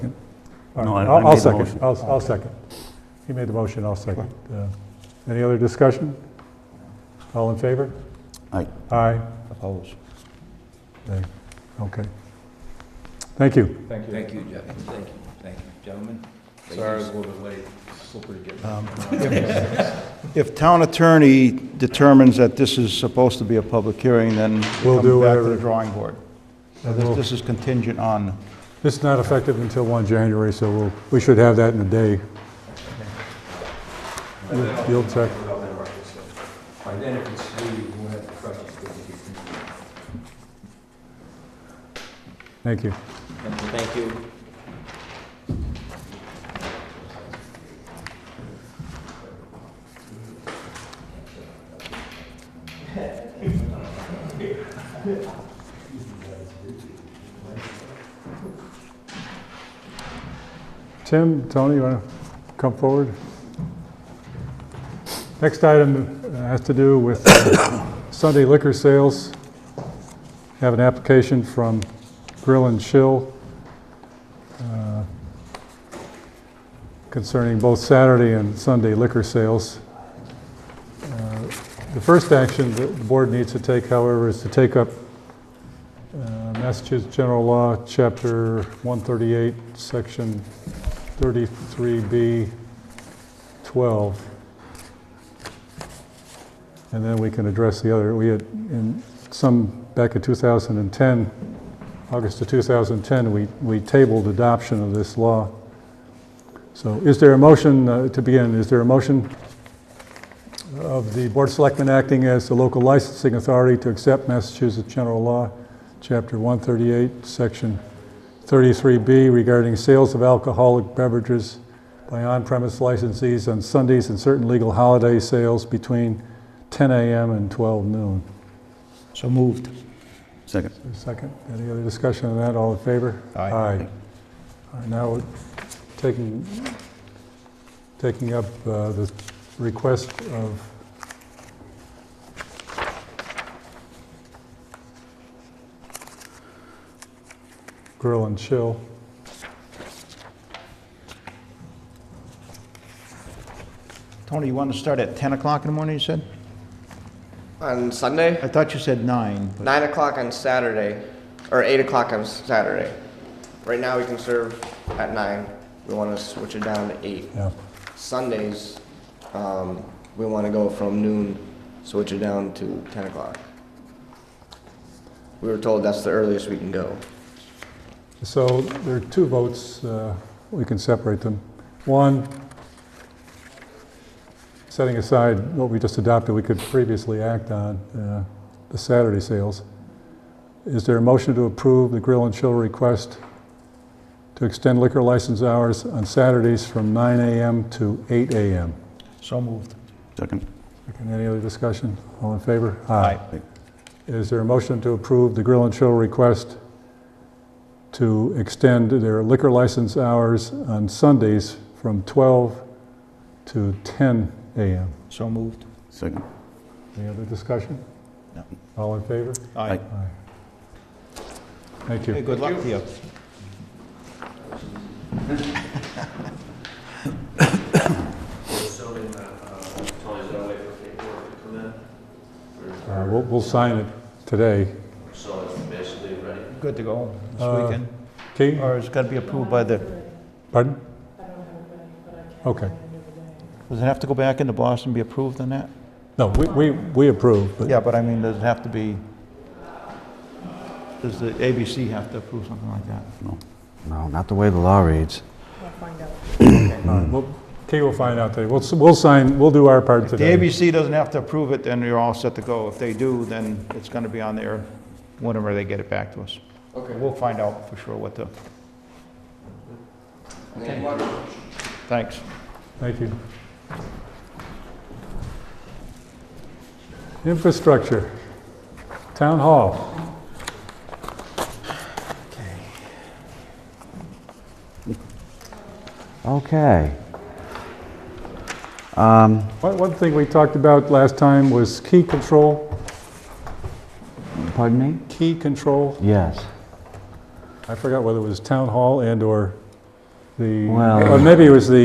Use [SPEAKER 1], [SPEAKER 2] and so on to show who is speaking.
[SPEAKER 1] All
[SPEAKER 2] No, I-
[SPEAKER 1] right,
[SPEAKER 2] I
[SPEAKER 1] I'll
[SPEAKER 2] made
[SPEAKER 1] I'll
[SPEAKER 2] the
[SPEAKER 1] second,
[SPEAKER 2] motion.
[SPEAKER 1] I'll I'll second. He made the motion, I'll second. Uh, Any other discussion? All in favor?
[SPEAKER 2] Aye.
[SPEAKER 1] Aye.
[SPEAKER 3] Opposed?
[SPEAKER 1] Nay. Okay. Thank you.
[SPEAKER 4] Thank you. Thank you, Jeff, thank you, thank you, gentlemen. Sorry I was a little bit late, slippery getting.
[SPEAKER 3] If town attorney determines that this is supposed to be a public hearing, then it
[SPEAKER 1] We'll do
[SPEAKER 3] comes back to
[SPEAKER 1] whatever.
[SPEAKER 3] the drawing board.
[SPEAKER 1] And
[SPEAKER 3] This
[SPEAKER 1] we'll-
[SPEAKER 3] this is contingent on,
[SPEAKER 1] This is not effective until 1 January, so we'll, we should have that in a day. You'll- You'll check.
[SPEAKER 4] By then, if it's three, we'll have the crutches, but we can-
[SPEAKER 1] Thank you.
[SPEAKER 4] Thank you.
[SPEAKER 1] Tim, Tony, you want to come forward? Next item uh, has to do with uh, Sunday liquor sales. Have an application from Grill and Chill uh, concerning both Saturday and Sunday liquor sales. Uh, The first action that the board needs to take, however, is to take up uh, Massachusetts General Law, Chapter 138, Section 33B 12. And then we can address the other. We had, in some, back in 2010, August of 2010, we, we tabled adoption of this law. So is there a motion, uh, to begin, is there a motion of the Board of Selectmen acting as the local licensing authority to accept Massachusetts General Law, Chapter 138, Section 33B regarding sales of alcoholic beverages by on-premise licensees on Sundays and certain legal holiday sales between 10 a.m. and 12 noon.
[SPEAKER 3] so moved.
[SPEAKER 2] Second.
[SPEAKER 1] Is there a Second, any other discussion on that? All in favor?
[SPEAKER 3] Aye.
[SPEAKER 1] All right, now we're taking, taking up uh, the request of... Grill and Chill.
[SPEAKER 3] Tony, you want to start at 10 o'clock in the morning, you said?
[SPEAKER 5] On Sunday?
[SPEAKER 3] I thought you said 9, but
[SPEAKER 5] Nine o'clock on Saturday, or eight o'clock on Saturday. Right now, we can serve at nine. We want to switch it down to eight.
[SPEAKER 1] Yeah,
[SPEAKER 5] Sundays, um, we want to go from noon, switch it down to ten o'clock. We were told that's the earliest we can go.
[SPEAKER 1] so there are two votes, uh, we can separate them. One, setting aside what we just adopted, we could previously act on, uh, the Saturday sales. Is there a motion to approve the Grill and Chill request to extend liquor license hours on Saturdays from 9 AM to 8 AM?
[SPEAKER 3] so moved.
[SPEAKER 2] Second.
[SPEAKER 1] Okay, Any other discussion? All in favor?
[SPEAKER 2] Aye.
[SPEAKER 1] Is there a motion to approve the Grill and Chill request to extend their liquor license hours on Sundays from 12 to 10 a.m.?
[SPEAKER 3] So moved.
[SPEAKER 2] Second.
[SPEAKER 1] Any other discussion?
[SPEAKER 3] No.
[SPEAKER 1] All in favor?
[SPEAKER 3] Aye.
[SPEAKER 1] Aye. Thank
[SPEAKER 3] Hey,
[SPEAKER 1] you.
[SPEAKER 3] good luck to you.
[SPEAKER 1] Uh, We'll we'll sign it today.
[SPEAKER 3] Good to go this
[SPEAKER 1] Uh,
[SPEAKER 3] weekend?
[SPEAKER 1] Kate? uh,
[SPEAKER 3] Or it's got to be approved by the,
[SPEAKER 1] Pardon? Okay.
[SPEAKER 3] does it have to go back into Boston and be approved on that?
[SPEAKER 1] No, we- we we approve, but
[SPEAKER 3] Yeah, but I mean, does it have to be, does the ABC have to approve something like that?
[SPEAKER 6] No, not the way the law reads.
[SPEAKER 1] all right, we'll- Kate will find out today. We'll s- We'll sign, we'll do our part
[SPEAKER 3] If the
[SPEAKER 1] today.
[SPEAKER 3] ABC doesn't have to approve it, then you're all set to go. If they do, then it's going to be on there whenever they get it back to us.
[SPEAKER 5] Okay.
[SPEAKER 3] We'll find out for sure what the, thanks.
[SPEAKER 1] Thank you. Infrastructure, Town Hall.
[SPEAKER 6] Okay.
[SPEAKER 1] One one thing we talked about last time was key control,
[SPEAKER 6] Pardon me?
[SPEAKER 1] key control.
[SPEAKER 6] Yes.
[SPEAKER 1] I forgot whether it was Town Hall and/or the,
[SPEAKER 6] Well-
[SPEAKER 1] or maybe it was the